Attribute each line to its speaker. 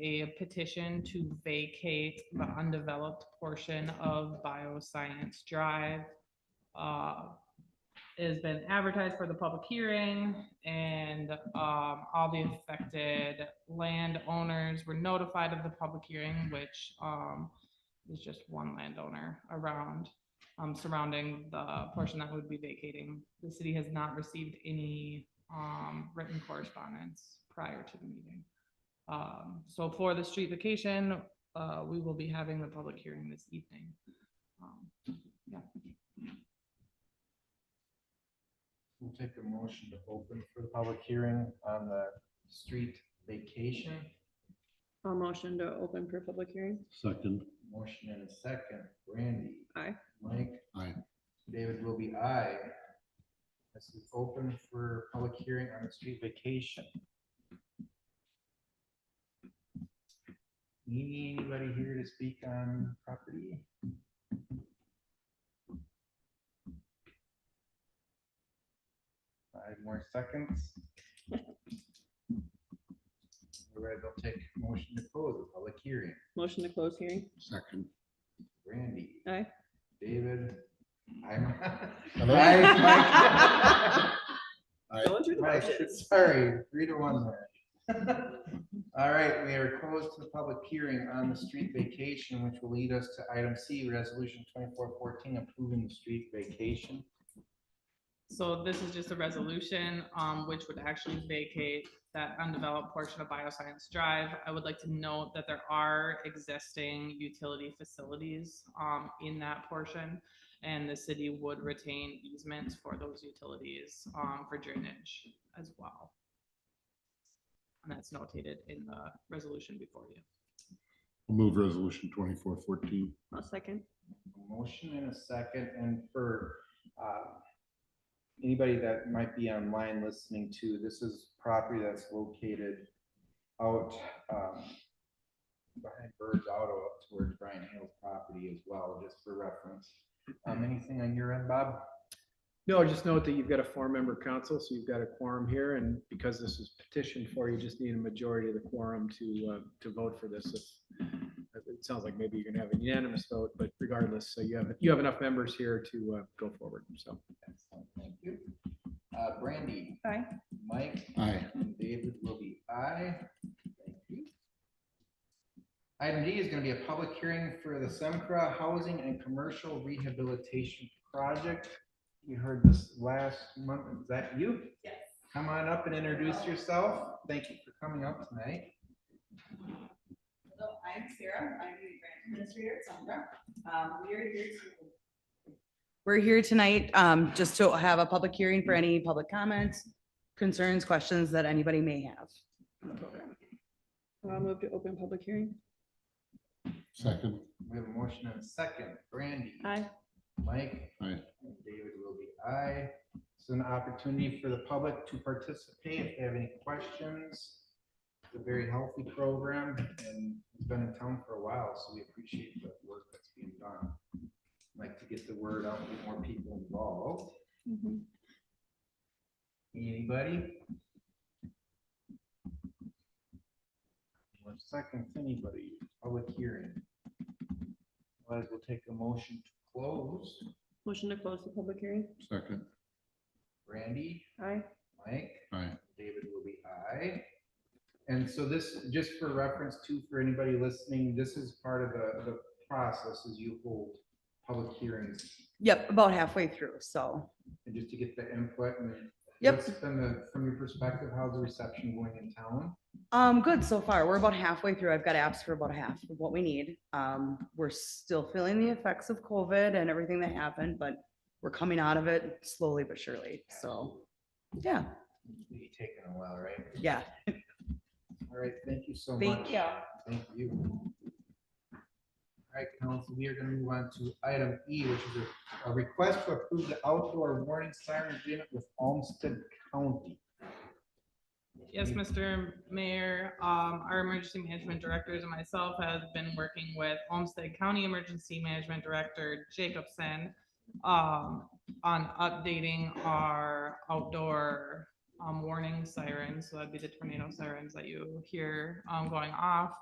Speaker 1: a petition to vacate the undeveloped portion of Bioscience Drive. Uh, it has been advertised for the public hearing and um, all the affected landowners were notified of the public hearing, which um, is just one landowner around, um, surrounding the portion that would be vacating. The city has not received any um, written correspondence prior to the meeting. Um, So for the street vacation, uh, we will be having the public hearing this evening. Um,
Speaker 2: We'll take a motion to open for the public hearing on the street vacation.
Speaker 3: I'll motion to open for public hearing.
Speaker 4: Second,
Speaker 2: Motion and a second. Randy.
Speaker 3: Aye.
Speaker 2: Mike.
Speaker 4: Aye.
Speaker 2: David will be aye. This is open for public hearing on the street vacation. Anybody here to speak on property? Five more seconds. All right, I'll take a motion to close the public hearing.
Speaker 3: Motion to close hearing.
Speaker 4: second.
Speaker 2: Randy.
Speaker 3: Aye.
Speaker 2: David. I'm.
Speaker 3: Aye.
Speaker 4: Aye.
Speaker 3: Going through the
Speaker 2: Mike,
Speaker 3: motions.
Speaker 2: Sorry, three to one. there. All right, we are closed to the public hearing on the street vacation, which will lead us to item C, resolution twenty-four fourteen, approving the street vacation.
Speaker 1: So this is just a resolution, um, which would actually vacate that undeveloped portion of Bioscience Drive. I would like to note that there are existing utility facilities, um, in that portion. And the city would retain easements for those utilities, um, for drainage as well. And that's notated in the resolution before you.
Speaker 4: I'll Move resolution twenty-four fourteen.
Speaker 3: I'll second.
Speaker 2: A Motion and a second, and for uh, anybody that might be online listening to, this is property that's located out um, behind Bird's Auto up towards Brian Hale's property as well, just for reference. Um, Anything on your end, Bob?
Speaker 5: No, just note that you've got a four-member council, so you've got a quorum here, and because this is petitioned for, you just need a majority of the quorum to, uh, to vote for this. If- It sounds like maybe you're gonna have a unanimous vote, but regardless, so you have, you have enough members here to, uh, go forward, so.
Speaker 2: Excellent, Thank you. Uh, Brandy?
Speaker 3: Aye.
Speaker 2: Mike?
Speaker 4: Aye.
Speaker 2: And David will be aye. Thank you. Item D is gonna be a public hearing for the Semcra Housing and Commercial Rehabilitation Project. You heard this last month. Is that you? Yes. Come on up and introduce yourself. Thank you for coming up tonight.
Speaker 6: Hello, I'm Sarah. I'm the grant administrator at Sunbrook. Um, we are here to. We're here tonight, um, just to have a public hearing for any public comments, concerns, questions that anybody may have.
Speaker 3: I'll move to open public hearing.
Speaker 4: Second,
Speaker 2: We have a motion and a second. Brandy?
Speaker 3: Aye.
Speaker 2: Mike?
Speaker 4: Aye.
Speaker 2: And David will be aye. It's an opportunity for the public to participate if they have any questions. It's a very healthy program and it's been in town for a while, so we appreciate the work that's being done. Like to get the word out, get more people involved.
Speaker 3: Mm-hmm.
Speaker 2: Anybody? One second, anybody, public hearing. Otherwise, we'll take a motion to close.
Speaker 3: Motion to close the public hearing.
Speaker 4: second,
Speaker 2: Randy,
Speaker 3: Aye.
Speaker 2: Mike,
Speaker 4: aye.
Speaker 2: David will be aye. And so this, just for reference too, for anybody listening, this is part of the, the process is you hold public hearings
Speaker 6: Yep, about halfway through, so.
Speaker 2: and just to get the input and. then
Speaker 6: Yep.
Speaker 2: what's From the, from your perspective, how's the reception going in town?
Speaker 6: Um, good so far. We're about halfway through. I've got apps for about half of what we need. Um, we're still feeling the effects of COVID and everything that happened, but we're coming out of it slowly but surely. So, yeah,
Speaker 2: It's taken a while, right?
Speaker 6: yeah.
Speaker 2: All right, thank you so much.
Speaker 6: Thank you.
Speaker 2: Thank you. All right, council, we are gonna move on to item E, which is a- a request to approve the outdoor warning siren agreement with Olmsted County.
Speaker 1: Yes, Mr. Mayor, um, our emergency management directors and myself have been working with Olmsted County Emergency Management Director Jacobson um, on updating our outdoor, um, warning sirens, so that'd be the tornado sirens that you hear, um, going off.